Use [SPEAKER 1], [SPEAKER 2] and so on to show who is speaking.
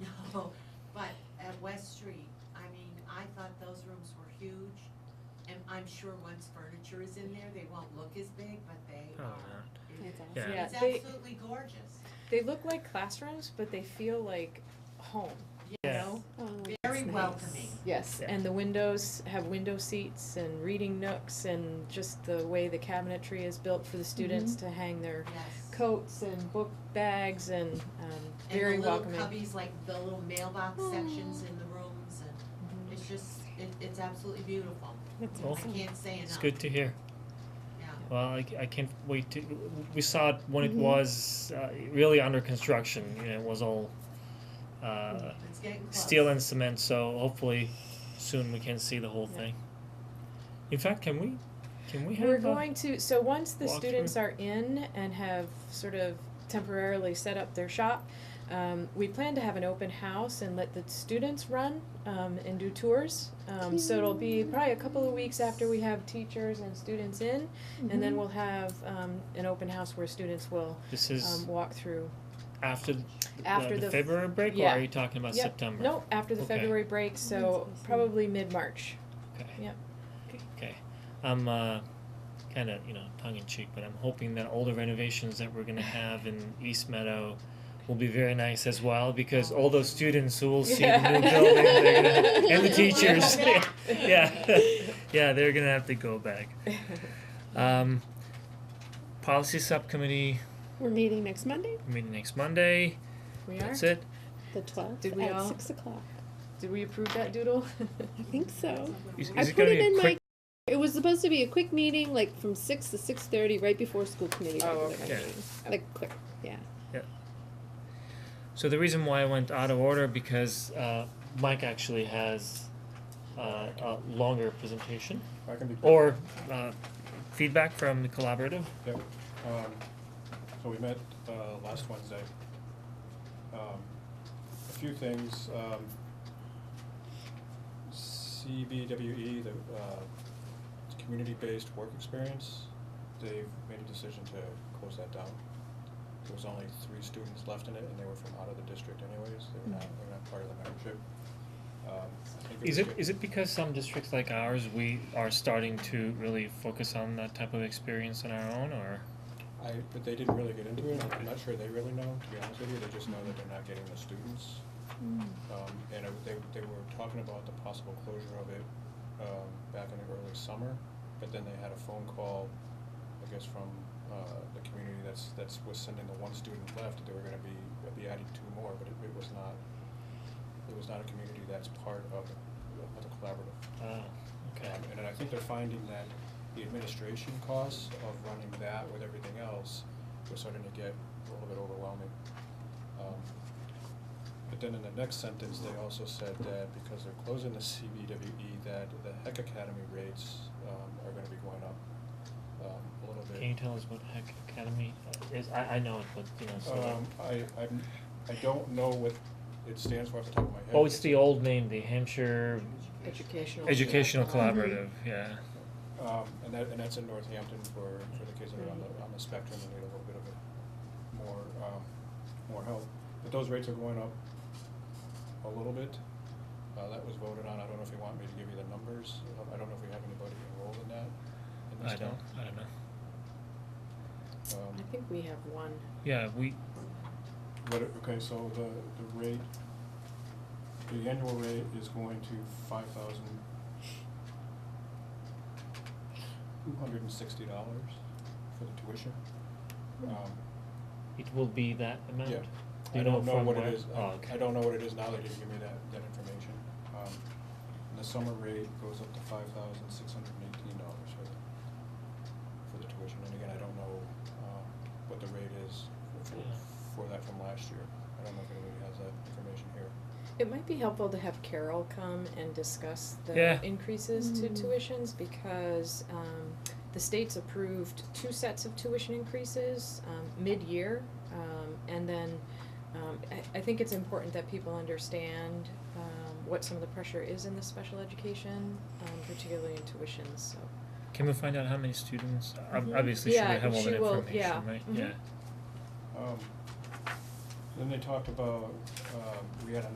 [SPEAKER 1] So, but at West Street, I mean, I thought those rooms were huge, and I'm sure once furniture is in there, they won't look as big, but they
[SPEAKER 2] Oh,
[SPEAKER 1] are.
[SPEAKER 3] It's awesome.
[SPEAKER 2] Yeah.
[SPEAKER 3] Yeah,
[SPEAKER 1] It's
[SPEAKER 3] they,
[SPEAKER 1] absolutely gorgeous,
[SPEAKER 3] they look like classrooms, but they feel like home.
[SPEAKER 1] you
[SPEAKER 2] Yeah.
[SPEAKER 1] know,
[SPEAKER 4] Oh,
[SPEAKER 1] very
[SPEAKER 4] that's nice.
[SPEAKER 1] welcoming.
[SPEAKER 3] Yes,
[SPEAKER 2] Yeah.
[SPEAKER 3] and the windows have window seats and reading nooks and just the way the cabinetry is built for the
[SPEAKER 1] Mm-hmm.
[SPEAKER 3] students to hang their
[SPEAKER 1] Yes.
[SPEAKER 3] coats and book bags and um, very welcoming.
[SPEAKER 1] And the little cubbies, like the little mailbox sections in the rooms, and
[SPEAKER 3] Mhm.
[SPEAKER 1] it's just, it, it's absolutely beautiful.
[SPEAKER 4] That's
[SPEAKER 1] I
[SPEAKER 2] Well,
[SPEAKER 4] awesome.
[SPEAKER 1] can't say enough.
[SPEAKER 2] It's good to hear.
[SPEAKER 1] Yeah,
[SPEAKER 2] Well, I, I can't wait to. We saw it when
[SPEAKER 3] Mm-hmm.
[SPEAKER 4] Mhm.
[SPEAKER 2] it was uh, really under construction. You know, it was all uh,
[SPEAKER 1] it's getting close.
[SPEAKER 2] steel and cement. So hopefully, soon we can see the whole
[SPEAKER 3] Yeah.
[SPEAKER 2] thing. In fact, can we? Can we have? uh,
[SPEAKER 3] We're
[SPEAKER 2] a-
[SPEAKER 3] going to, so once the
[SPEAKER 2] walkthrough?
[SPEAKER 3] students are in and have sort of temporarily set up their shop, um, we plan to have an open house and let the students run, um, and do tours. Um, so it'll be probably a couple of weeks after we have teachers and students in,
[SPEAKER 4] Mm-hmm.
[SPEAKER 3] and then we'll have, um, an open house where students will,
[SPEAKER 2] this is
[SPEAKER 3] um, walk through.
[SPEAKER 2] after the,
[SPEAKER 3] after
[SPEAKER 2] the
[SPEAKER 3] the-
[SPEAKER 2] February break,
[SPEAKER 3] yeah.
[SPEAKER 2] or are you talking about
[SPEAKER 3] Yep.
[SPEAKER 2] September?
[SPEAKER 3] Nope, after the
[SPEAKER 2] Okay.
[SPEAKER 3] February break, so
[SPEAKER 4] That's awesome.
[SPEAKER 3] probably mid-March.
[SPEAKER 2] Okay.
[SPEAKER 3] Yep.
[SPEAKER 2] Okay. I'm uh, kind of, you know, tongue in cheek, but I'm hoping that all the renovations that we're going to have in East Meadow will be very nice as well because all those students who will see the new
[SPEAKER 3] Yeah.
[SPEAKER 2] building they're gonna, and the
[SPEAKER 1] You don't wanna go
[SPEAKER 2] teachers
[SPEAKER 1] back.
[SPEAKER 2] yeah yeah they're gonna have to go back um, policy subcommittee
[SPEAKER 4] We're meeting next Monday,
[SPEAKER 2] meeting next monday
[SPEAKER 3] We are,
[SPEAKER 2] that's it
[SPEAKER 4] the twelfth,
[SPEAKER 3] Did we
[SPEAKER 4] at
[SPEAKER 3] all-
[SPEAKER 4] six o'clock.
[SPEAKER 3] did we approve that doodle?
[SPEAKER 4] I think so.
[SPEAKER 2] is, is
[SPEAKER 4] I
[SPEAKER 2] it
[SPEAKER 4] put
[SPEAKER 2] gonna
[SPEAKER 4] it
[SPEAKER 2] be a
[SPEAKER 4] in
[SPEAKER 2] quick
[SPEAKER 4] my. It was supposed to be a quick meeting, like from six to six thirty, right before school committee.
[SPEAKER 3] Oh,
[SPEAKER 4] regular
[SPEAKER 2] okay.
[SPEAKER 4] meeting. Like quick, yeah.
[SPEAKER 2] So the reason why I went out of order because uh, Mike actually has uh, a longer presentation
[SPEAKER 5] I can be.
[SPEAKER 2] or uh, feedback from the collaborative.
[SPEAKER 5] Yep. Um, So we met uh, last Wednesday. Um, A few things. um, CBWE, the uh, community-based work experience, they've made a decision to close that down. There was only three students left in it, and they were from out of the district anyways. They were not, they were not part of the membership. Um, I think
[SPEAKER 2] Is
[SPEAKER 5] was
[SPEAKER 2] it
[SPEAKER 5] good.
[SPEAKER 2] is it because some districts like ours we are starting to really focus on that type of experience on our own or
[SPEAKER 5] I, but they didn't really get into it, I'm not sure they really know, to be honest with you, they just know that they're not getting the students.
[SPEAKER 2] Mm.
[SPEAKER 5] Um, and it- they, they were talking about the possible closure of it, um, back in the early summer, but then they had a phone call, I guess, from, uh, the community that's, that's, was sending the one student left, that they were gonna be, be adding two more, but it, it was not, it was not a community that's part of, of the collaborative.
[SPEAKER 2] uh, okay.
[SPEAKER 5] Um, And then I think they're finding that the administration costs of running that with everything else was starting to get a little bit overwhelming. Um, But then in the next sentence, they also said that because they're closing the CBWE, E, that the Heck Academy rates, um, are gonna be going up, um, a little bit.
[SPEAKER 2] Can you tell us what Heck Academy is? I, I know it, but you know. So
[SPEAKER 5] Um, I, I'm, I don't know what it stands for off the top of my head.
[SPEAKER 2] oh, it's the old name, the Hampshire
[SPEAKER 3] Educational.
[SPEAKER 2] Educational Collaborative. Yeah.
[SPEAKER 5] Um, and that, and that's in Northampton for, for the kids that are on the, on the spectrum and need a little bit of a more, um, more help. But those rates are going up a little bit. Uh, that was voted on. I don't know if you want me to give you the numbers. Uh, I don't know if we have anybody enrolled in that in
[SPEAKER 2] I
[SPEAKER 5] this
[SPEAKER 2] don't.
[SPEAKER 5] town.
[SPEAKER 2] I don't know.
[SPEAKER 5] Um,
[SPEAKER 3] Mm-hmm. I think we have one.
[SPEAKER 2] Yeah, we
[SPEAKER 5] What, it- okay, so the, the rate, the annual rate is going to five thousand two hundred and sixty dollars for the tuition.
[SPEAKER 3] Oh.
[SPEAKER 5] Um,
[SPEAKER 2] It will be that amount?
[SPEAKER 5] Yeah.
[SPEAKER 2] Do you
[SPEAKER 5] I
[SPEAKER 2] know
[SPEAKER 5] don't know
[SPEAKER 2] from
[SPEAKER 5] what
[SPEAKER 2] where?
[SPEAKER 5] it is. I-
[SPEAKER 2] Oh, okay.
[SPEAKER 5] I don't know what it is now. They didn't give me that, that information. Um, and the summer rate goes up to five thousand six hundred and eighteen dollars for the, for the tuition. And again, I don't know, um, what the rate is for,
[SPEAKER 2] Yeah.
[SPEAKER 5] for that from last year. I don't know if anybody has that information here.
[SPEAKER 3] It might be helpful to have Carol come and discuss
[SPEAKER 2] Yeah.
[SPEAKER 3] the increases to
[SPEAKER 4] Mm.
[SPEAKER 3] tuitions because um the state's approved two sets of tuition increases um mid-year. Um and then um I I think it's important that people understand um what some of the pressure is in the special education, um particularly in tuitions, so.
[SPEAKER 2] Can we find out how many students? Ob-
[SPEAKER 5] Mm-hmm.
[SPEAKER 3] Mhm.
[SPEAKER 2] Obviously,
[SPEAKER 3] Yeah,
[SPEAKER 2] she would have all
[SPEAKER 3] she
[SPEAKER 2] that
[SPEAKER 3] will,
[SPEAKER 2] information,
[SPEAKER 3] yeah.
[SPEAKER 2] right?
[SPEAKER 3] Mhm.
[SPEAKER 2] Yeah.
[SPEAKER 5] Um, then they talked about, um, we had a